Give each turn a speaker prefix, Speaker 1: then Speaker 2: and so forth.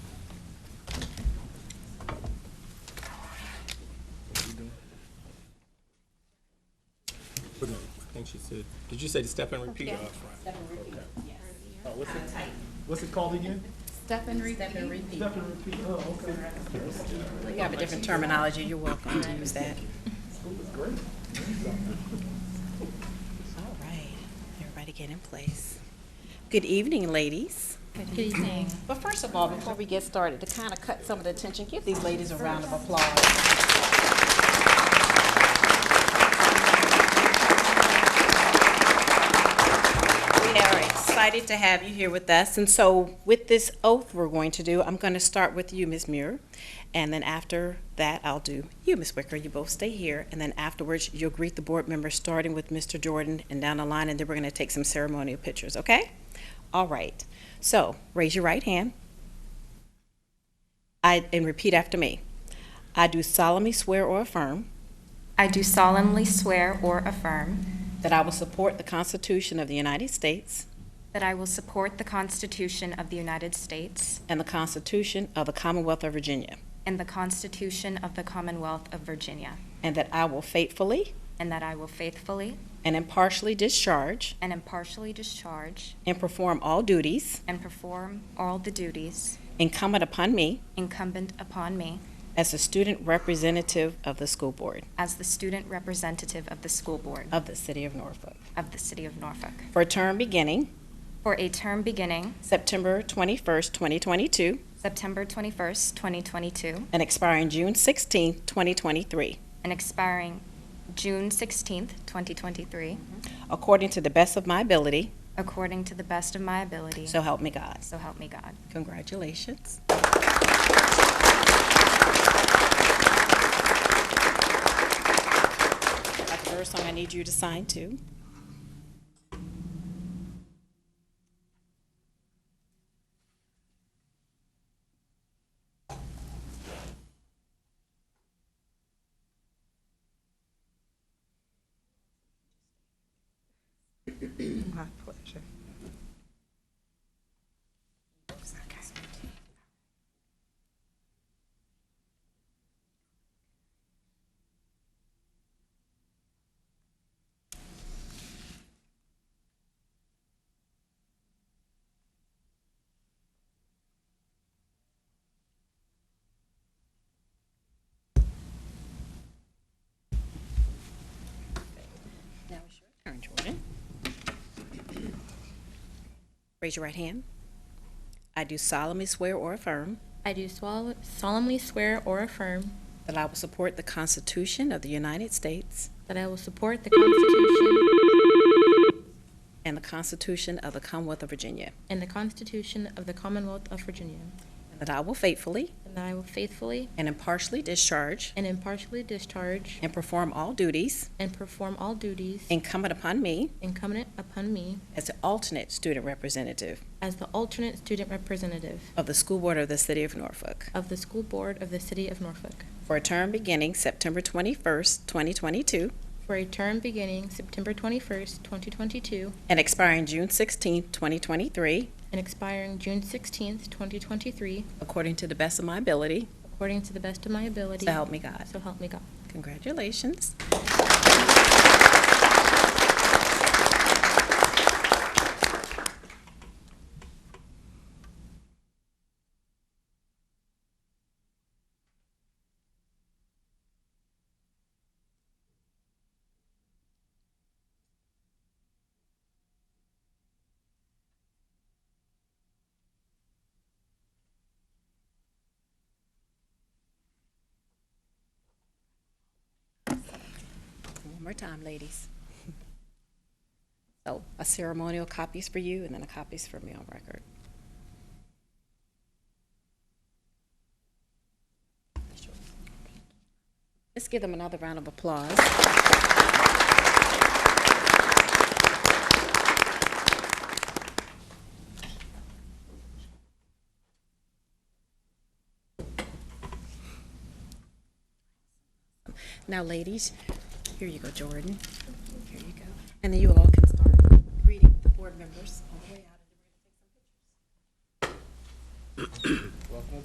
Speaker 1: What did- I think she said, did you say to step and repeat?
Speaker 2: Yeah.
Speaker 1: Uh,
Speaker 3: Step and repeat, yes.
Speaker 1: Oh, what's
Speaker 3: Kinda
Speaker 1: it,
Speaker 3: tight.
Speaker 1: what's it called again?
Speaker 2: Step and repeat.
Speaker 3: Step and repeat.
Speaker 1: Step and repeat, oh, okay.
Speaker 4: We have a different terminology, you're welcome to use that.
Speaker 1: School is great.
Speaker 4: All right, everybody get in place. Good evening, ladies.
Speaker 2: Good evening.
Speaker 4: But first of all, before we get started, to kind of cut some of the tension, give these ladies a round of applause. We are excited to have you here with us, and so with this oath we're going to do, I'm going to start with you, Ms. Muir, and then after that, I'll do you, Ms. Wicker. You both stay here, and then afterwards, you'll greet the board members, starting with Mr. Jordan and down the line, and then we're going to take some ceremonial pictures, okay? All right. So raise your right hand. I, and repeat after me. I do solemnly swear or affirm
Speaker 2: I do solemnly swear or affirm
Speaker 4: that I will support the Constitution of the United States
Speaker 2: that I will support the Constitution of the United States
Speaker 4: and the Constitution of the Commonwealth of Virginia,
Speaker 2: and the Constitution of the Commonwealth of Virginia,
Speaker 4: and that I will faithfully
Speaker 2: and that I will faithfully
Speaker 4: and impartially discharge
Speaker 2: and impartially discharge
Speaker 4: and perform all duties
Speaker 2: and perform all the duties
Speaker 4: incumbent upon me
Speaker 2: incumbent upon me
Speaker 4: as a student representative of the school board
Speaker 2: as the student representative of the school board
Speaker 4: of the City of Norfolk
Speaker 2: of the City of Norfolk
Speaker 4: for a term beginning
Speaker 2: for a term beginning
Speaker 4: September 21st, 2022,
Speaker 2: September 21st, 2022,
Speaker 4: and expiring June 16th, 2023.
Speaker 2: and expiring June 16th, 2023,
Speaker 4: According to the best of my ability,
Speaker 2: according to the best of my ability.
Speaker 4: so help me God.
Speaker 2: So help me God.
Speaker 4: Congratulations. Got the first song I need you to sign too.
Speaker 5: My pleasure.
Speaker 4: Now it's your turn, Jordan. Raise your right hand. I do solemnly swear or affirm
Speaker 6: I do swal- solemnly swear or affirm
Speaker 4: that I will support the Constitution of the United States
Speaker 6: that I will support the Constitution
Speaker 4: and the Constitution of the Commonwealth of Virginia,
Speaker 6: and the Constitution of the Commonwealth of Virginia,
Speaker 4: and that I will faithfully
Speaker 6: and that I will faithfully
Speaker 4: and impartially discharge
Speaker 6: and impartially discharge
Speaker 4: and perform all duties
Speaker 6: and perform all duties
Speaker 4: incumbent upon me
Speaker 6: incumbent upon me
Speaker 4: as the alternate student representative
Speaker 6: as the alternate student representative
Speaker 4: of the School Board of the City of Norfolk
Speaker 6: of the School Board of the City of Norfolk
Speaker 4: for a term beginning September 21st, 2022,
Speaker 6: for a term beginning September 21st, 2022,
Speaker 4: and expiring June 16th, 2023,
Speaker 6: and expiring June 16th, 2023,
Speaker 4: according to the best of my ability,
Speaker 6: according to the best of my ability.
Speaker 4: so help me God.
Speaker 6: So help me God.
Speaker 4: Congratulations. One more time, ladies. So a ceremonial copy's for you, and then a copy's for me on record. Let's give them another round of applause. Now, ladies, here you go, Jordan. Here you go. And then you all can start greeting the board members all the way out. and we're gonna take some pictures.